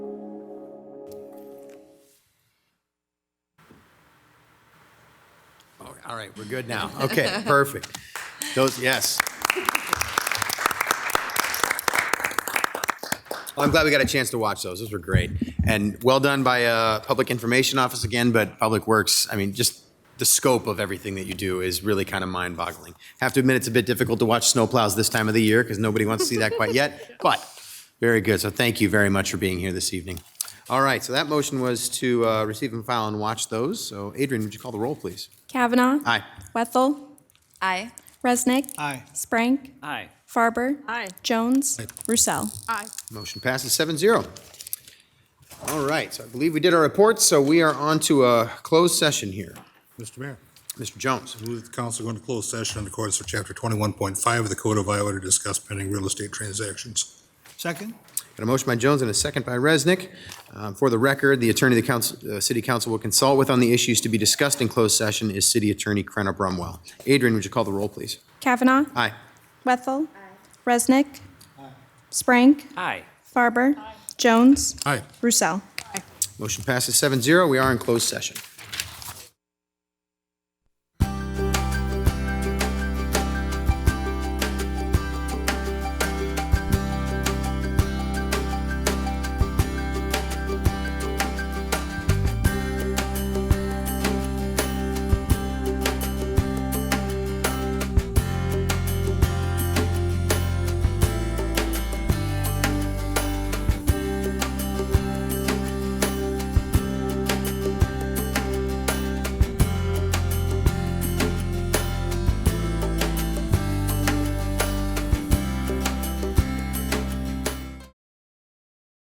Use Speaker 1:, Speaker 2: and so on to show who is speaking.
Speaker 1: All right, we're good now. Okay, perfect. Those, yes. Well, I'm glad we got a chance to watch those. Those were great. And well done by uh, Public Information Office again, but Public Works, I mean, just the scope of everything that you do is really kind of mind-boggling. Have to admit, it's a bit difficult to watch snowplows this time of the year because nobody wants to see that quite yet, but very good. So thank you very much for being here this evening. All right, so that motion was to uh, receive and file and watch those. So Adrian, would you call the roll, please?
Speaker 2: Kavanaugh.
Speaker 1: Aye.
Speaker 2: Wethel.
Speaker 3: Aye.
Speaker 2: Resnick.
Speaker 4: Aye.
Speaker 2: Sprank.
Speaker 4: Aye.
Speaker 2: Farber.
Speaker 3: Aye.
Speaker 2: Jones. Roussel.
Speaker 3: Aye.
Speaker 1: Motion passes 7-0. All right, so I believe we did our reports, so we are on to a closed session here.
Speaker 5: Mr. Mayor,
Speaker 1: Mr. Jones,
Speaker 5: I move that the council go into closed session in accordance with Chapter 21.5 of the Code of Iowa to discuss pending real estate transactions.
Speaker 4: Second?
Speaker 1: got a motion by Jones and a second by Resnick. Um, For the record, the attorney the council, uh, city council will consult with on the issues to be discussed in closed session is city attorney Krenna Brumwell. Adrian, would you call the roll, please?
Speaker 2: Kavanaugh.
Speaker 1: Aye.
Speaker 2: Wethel. Resnick. Sprank.
Speaker 4: Aye.
Speaker 2: Farber. Jones.
Speaker 5: Aye.
Speaker 2: Roussel.
Speaker 1: Motion passes 7-0. We are in closed session.